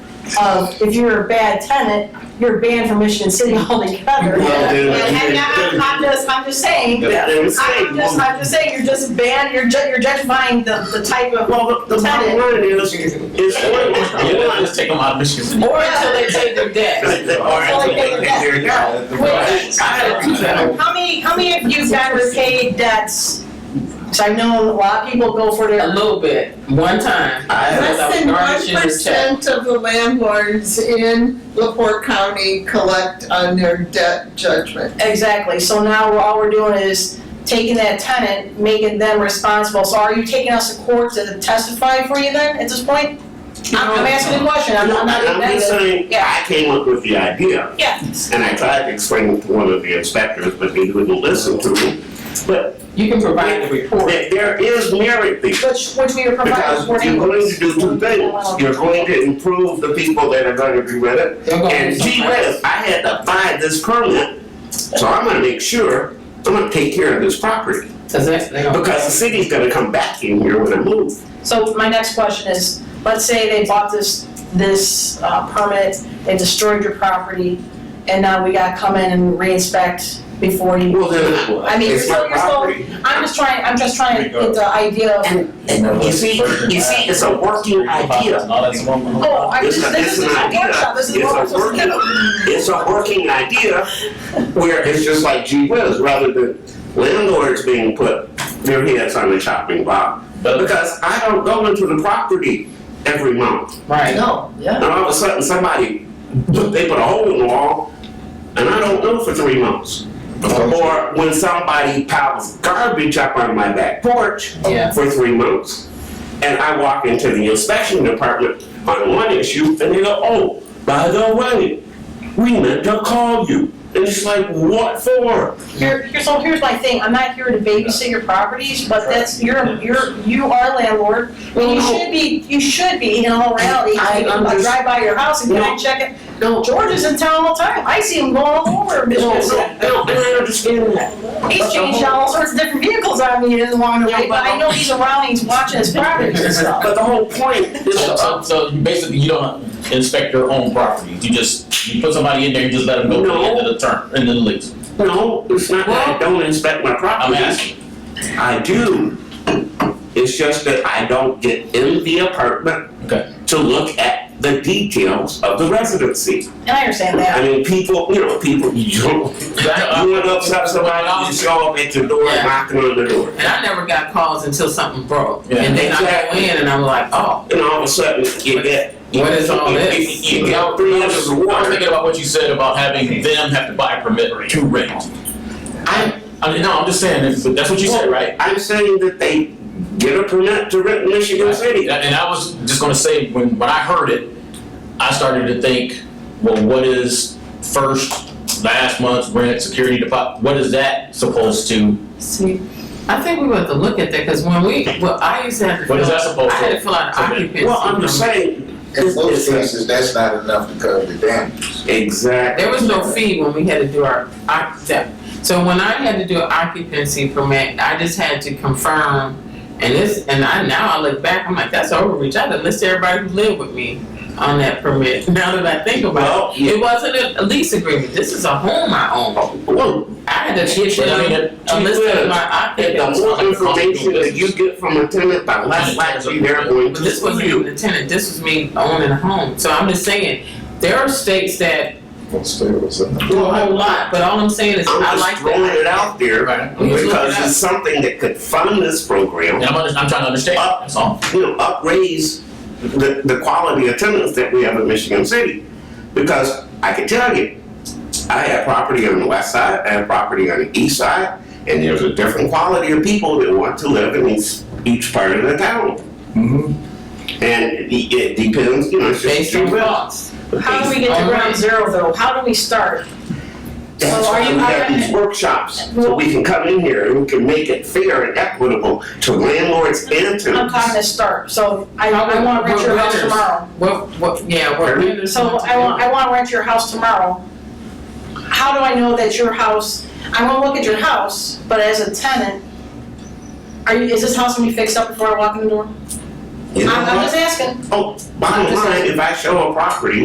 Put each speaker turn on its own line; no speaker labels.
of if you're a bad tenant, you're banned from Michigan City altogether.
Well,
And
they-
I'm I'm just, I'm just saying,
If they would say-
I'm just, I'm just saying, you're just banned, you're ju- you're judging the, the type of,
Well, the the bottom line is, is what
Yeah,
what-
let's take them out of Michigan City.
Or until they take their debt.
I had two that.
how many, how many of you guys were paid debts? Cause I know a lot of people go for
A
their,
little bit, one time. I was
Less than
garnishing
one
his check.
percent of the landlords in LaPorte County collect on their debt judgment.
exactly, so now we're, all we're doing is taking that tenant, making them responsible, so are you taking us to court to testify for you then, at this point? I'm I'm asking a question, I'm I'm not,
I'm just saying, I came up with the idea,
yeah,
and I tried to explain it to one of the inspectors, but they wouldn't listen to me. But
You can provide the report.
there- there is merit there.
which, which we are providing
Because
for
you're going to
anyways.
do two things. You're going to improve the people that are gonna be with it.
They're gonna do
And gee
something else.
whiz, I had to buy this permit, so I'm gonna make sure, I'm gonna take care of this property.
Cause that's, they gonna.
Because the city's gonna come back in here when I move.
So my next question is, let's say they bought this, this uh, permit, they destroyed your property, and now we gotta come in and re-inspect before you.
Well, then,
I mean, you're
it's
still,
my
you're still,
property.
I'm just trying, I'm just trying to get the idea of,
And, and you see, you see, it's a working idea.
oh, I
It's
just,
a-
this is a
it's an idea.
workshop, this is a
It's a working-
workshop.
It's a working idea where it's just like gee whiz, rather than landlords being put their heads on the chopping block. Because I don't go into the property every month.
Right.
No, yeah.
And all of a sudden, somebody, they put a hole in the wall, and I don't know for three months. Or when somebody piles garbage up on my back porch
Yeah.
for three months. And I walk into the inspection department on one issue, and they go, oh, by the way, we meant to call you. And it's like, what for?
Here, here- so here's my thing, I'm not here to babysit your properties, but that's, you're, you're, you are landlord, and you
No.
should be, you should be, in all reality,
I
I
under-
drive by your house and can I
No.
check it? No. George is in town all the time, I see him going all over
No,
Michigan City.
no, no, and I understand that.
He's changed out all sorts of different vehicles on me along the way, but I know he's around, he's watching his properties and stuff.
But the whole point is uh,
So,
about
so, so you basically, you don't inspect your own property, you just, you put somebody in there, and just let them go to the end of the term, and then lease.
No, it's not that I don't inspect my
I'm
property.
asking,
I do. It's just that I don't get in the apartment
okay,
to look at the details of the residency.
And I understand
I
that.
mean, people, you know, people, you don't, you went upset somebody, you show up at your door knocking on the door.
And I never got calls until something broke.
Yeah.
And then I go in and I'm like, oh,
And all of a sudden, you get.
What is all this?
You you get three inches of
I was
water.
thinking about what you said about having them have to buy a permit to rent. I, I mean, no, I'm just saying, if- that's what you said, right?
I'm saying that they get a permit to rent in Michigan City.
And and I was just gonna say, when, when I heard it, I started to think, well, what is first, last month's rent, security deposit, what is that supposed to,
see, I think we want to look at that, cause when we, well, I used to have to.
what is
fill-
that supposed
I had to
to?
fill out
So that-
an occupancy.
Well, I'm just
number.
saying.
In most
it's- it's-
cases, that's not enough to cover the damages.
Exactly.
There was no fee when we had to do our, our step. So when I had to do an occupancy permit, I just had to confirm, and this, and I, now I look back, I'm like, that's overreach, I had to list everybody who lived with me on that permit, now that I think
Well,
about it. It wasn't a- a lease agreement, this is a home I own,
Well,
I had to get
But I mean,
them
it-
a list of my
And the
occupants.
more information that you get from a tenant, the less likely they're going
But
to
this wasn't
sue
even
you.
the tenant, this was me owning a home, so I'm just saying, there are states that
Well, still, it's a-
do a whole lot, but all I'm saying is, I
I'm
like
just throwing
that.
it out there
Right.
We just look
because
it up.
it's something that could fund this
And
program,
I'm, under- I'm trying to understand, that's all.
you know, upraise the, the quality of tenants that we have in Michigan City. Because I can tell you, I have property on the west side, I have property on the east side, and there's a different quality of people that want to live in each, each part of the town. Mm-hmm. And it, it depends, you know, it's just.
Based on costs.
How do we get to ground zero though? How do we start?
That's
So are
why
you-
we
are-
have these workshops, so we can come in here and we can make it fair and equitable to landlords and
I'm talking
tenants.
to start, so I, I wanna rent your house tomorrow.
What, what, yeah, what.
Pardon
So I want, I wanna rent your house tomorrow. How do I know that your house, I wanna look at your house, but as a tenant, are you, is this house gonna be fixed up before I walk in the door? I'm,
You know
I'm
what?
just asking.
Oh, bottom line, if I show a property